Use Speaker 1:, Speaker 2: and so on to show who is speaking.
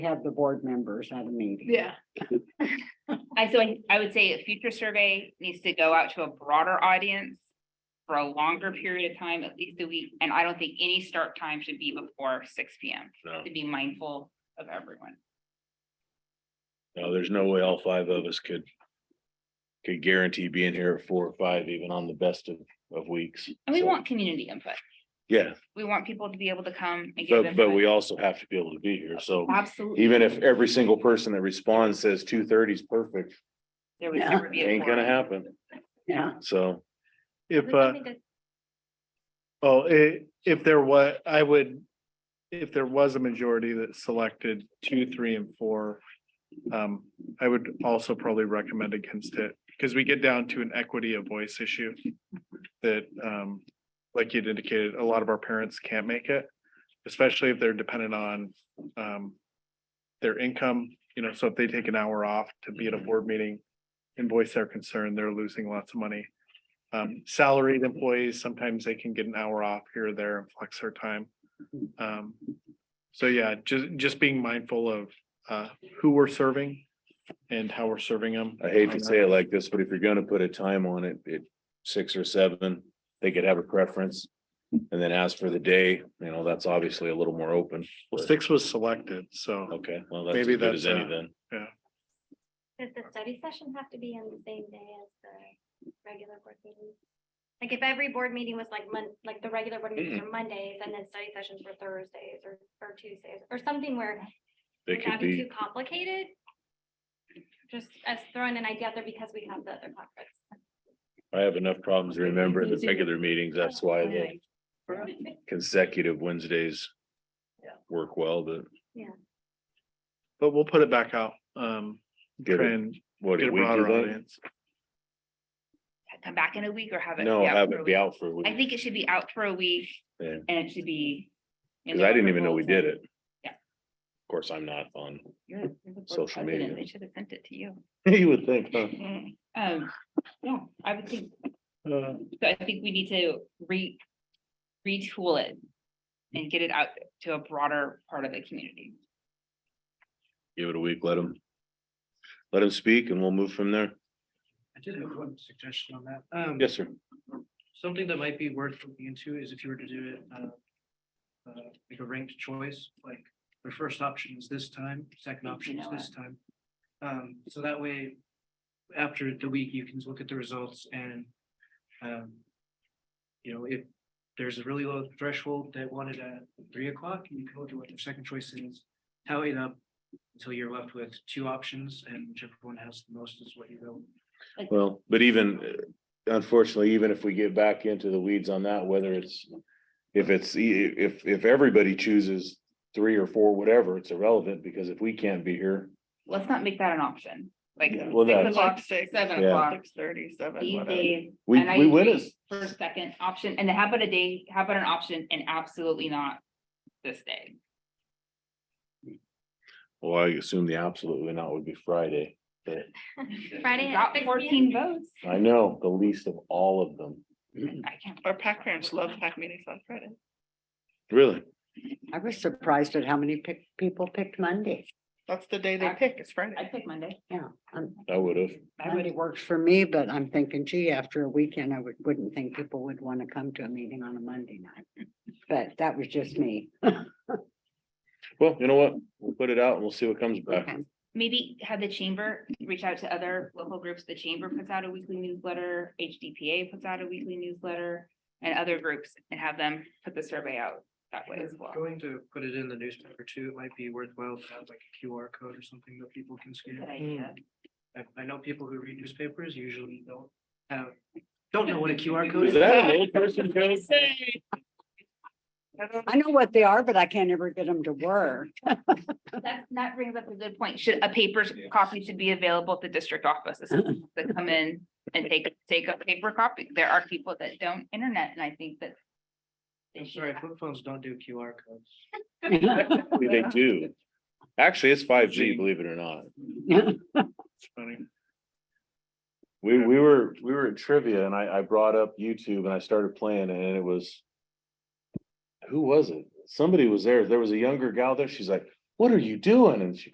Speaker 1: have the board members at a meeting.
Speaker 2: Yeah.
Speaker 3: I, so I, I would say a future survey needs to go out to a broader audience for a longer period of time, at least a week, and I don't think any start time should be before six P M,
Speaker 4: No,
Speaker 3: to be mindful of everyone.
Speaker 4: no, there's no way all five of us could. Could guarantee being here at four or five, even on the best of, of weeks.
Speaker 3: And we
Speaker 4: So,
Speaker 3: want community input.
Speaker 4: Yeah,
Speaker 3: We want people to be able to come and give
Speaker 4: but, but we
Speaker 3: input.
Speaker 4: also have to be able to be here. So
Speaker 3: Absolutely.
Speaker 4: even if every single person that responds says two thirty is perfect,
Speaker 3: There was
Speaker 1: Yeah.
Speaker 3: never be a
Speaker 4: ain't gonna
Speaker 3: quorum.
Speaker 4: happen.
Speaker 1: Yeah,
Speaker 4: So,
Speaker 5: If, uh, oh, i- if there was, I would, if there was a majority that selected two, three and four. Um, I would also probably recommend against it because we get down to an equity of voice issue. That, um, like you'd indicated, a lot of our parents can't make it, especially if they're dependent on, um. Their income, you know, so if they take an hour off to be at a
Speaker 4: Mm-hmm.
Speaker 5: board meeting and voice their concern, they're losing lots of money. Um, salaried employees, sometimes they can get an hour off here or there and flex their time. Um, so yeah, just, just being mindful of, uh, who we're serving and how we're serving them.
Speaker 4: I hate to say it like this, but if you're gonna put a time on it, it, six or seven, they could have a preference. And then as for the day, you know, that's obviously a little more open.
Speaker 5: Well, six was selected, so
Speaker 4: Okay, well, that's as
Speaker 5: Maybe
Speaker 4: good as
Speaker 5: that's,
Speaker 4: any
Speaker 5: uh,
Speaker 4: then.
Speaker 6: Does the study session have to be on the same day as the regular board meetings? Like if every board meeting was like Mon, like the regular board meetings are Mondays and then study sessions were Thursdays or, or Tuesdays or something where
Speaker 4: They
Speaker 6: would that
Speaker 4: could
Speaker 6: be
Speaker 4: be,
Speaker 6: too complicated? Just as throwing an idea out there because we have the other conference.
Speaker 4: I have enough problems remembering the regular meetings. That's why the consecutive Wednesdays work well, but
Speaker 5: but we'll put it back out. Um,
Speaker 4: Get
Speaker 5: try
Speaker 4: it-
Speaker 5: and
Speaker 4: what
Speaker 5: get
Speaker 4: did
Speaker 5: a
Speaker 4: we do
Speaker 5: broader
Speaker 4: that?
Speaker 5: audience.
Speaker 3: Come back in a week or have it.
Speaker 4: No,
Speaker 3: be out
Speaker 4: have
Speaker 3: for a
Speaker 4: it be
Speaker 3: week.
Speaker 4: out for a week.
Speaker 3: I think it should be out for a week
Speaker 4: Yeah.
Speaker 3: and it should be. in
Speaker 4: Cause
Speaker 3: the
Speaker 4: I didn't even know we did
Speaker 3: bulletin.
Speaker 4: it.
Speaker 3: Yeah.
Speaker 4: Of course, I'm not on.
Speaker 3: You're the- you're the board
Speaker 4: Social
Speaker 3: president.
Speaker 4: media.
Speaker 3: They should have sent it to you.
Speaker 4: You would think, huh?
Speaker 3: Um, yeah, I would think,
Speaker 5: Uh,
Speaker 3: so I think we need to re, retool it. And get it out to a broader part of the community.
Speaker 4: Give it a week, let them. Let them speak and we'll move from there.
Speaker 7: I did have one suggestion on that. Um,
Speaker 4: Yes, sir.
Speaker 7: Something that might be worth looking into is if you were to do it, uh, uh, like a ranked choice, like the first option is this time, second
Speaker 3: You
Speaker 7: option is
Speaker 3: know
Speaker 7: this time. Um, so that way, after the week, you can look at the results and, um, you know, if there's a really low threshold that wanted at three o'clock, you can look at what their second choice is, tally it up until you're left with two options and whichever one has the most is what you go.
Speaker 4: Well, but even uh, unfortunately, even if we get back into the weeds on that, whether it's. If it's, e- if, if everybody chooses three or four, whatever, it's irrelevant because if we can't be here.
Speaker 3: Let's not make that an option, like.
Speaker 4: Yeah, well,
Speaker 3: six
Speaker 4: that's-
Speaker 3: o'clock, Seven
Speaker 4: Yeah.
Speaker 3: o'clock.
Speaker 2: Six thirty, seven,
Speaker 3: These
Speaker 2: whatever.
Speaker 3: days,
Speaker 4: We,
Speaker 3: and I
Speaker 4: we win
Speaker 3: agree,
Speaker 4: it.
Speaker 3: First, second option, and then how about a day, how about an option and absolutely not this day?
Speaker 4: Well, I assume the absolutely not would be Friday. but
Speaker 6: Friday
Speaker 3: We
Speaker 6: at
Speaker 3: Got
Speaker 6: 6
Speaker 3: fourteen
Speaker 6: p.m.
Speaker 3: votes.
Speaker 4: I know the least of all of them.
Speaker 3: I can't.
Speaker 2: Our pack parents love pack meetings on Friday.
Speaker 4: Really?
Speaker 1: I was surprised at how many pick, people picked Monday.
Speaker 2: That's the day they pick, it's Friday.
Speaker 3: I pick Monday.
Speaker 1: Yeah, um,
Speaker 4: I would have.
Speaker 3: I
Speaker 1: Monday
Speaker 3: would,
Speaker 1: works for me, but I'm thinking, gee, after a weekend, I would, wouldn't think people would want to come to a meeting on a Monday night. But that was just me.
Speaker 4: Well, you know what? We'll put it out and we'll see what comes back.
Speaker 1: Okay.
Speaker 3: maybe have the chamber reach out to other local groups. The chamber puts out a weekly newsletter, HDPA puts out a weekly newsletter. And other groups and have them put the survey out that way as
Speaker 7: If
Speaker 3: well.
Speaker 7: Going to put it in the newspaper too, it might be worthwhile to have like a QR code or something that people can
Speaker 3: Good
Speaker 7: scan.
Speaker 3: idea.
Speaker 7: I, I know people who read newspapers usually don't have, don't know what a QR code
Speaker 4: Is
Speaker 7: is.
Speaker 4: that an old person joke?
Speaker 1: I know what they are, but I can't ever get them to work.
Speaker 3: That, that brings up a good point. Should, a paper copy should be available at the district offices that come in and take, take a paper copy. There are people that don't internet and I think that. they
Speaker 7: I'm
Speaker 3: should
Speaker 7: sorry,
Speaker 3: have-
Speaker 7: flip phones don't do QR codes.
Speaker 4: Technically, They do. Actually, it's five G, believe it or not.
Speaker 5: It's funny.
Speaker 4: We, we were, we were at trivia and I, I brought up YouTube and I started playing it and it was. Who was it? Somebody was there. There was a younger gal there. She's like, what are you doing? And she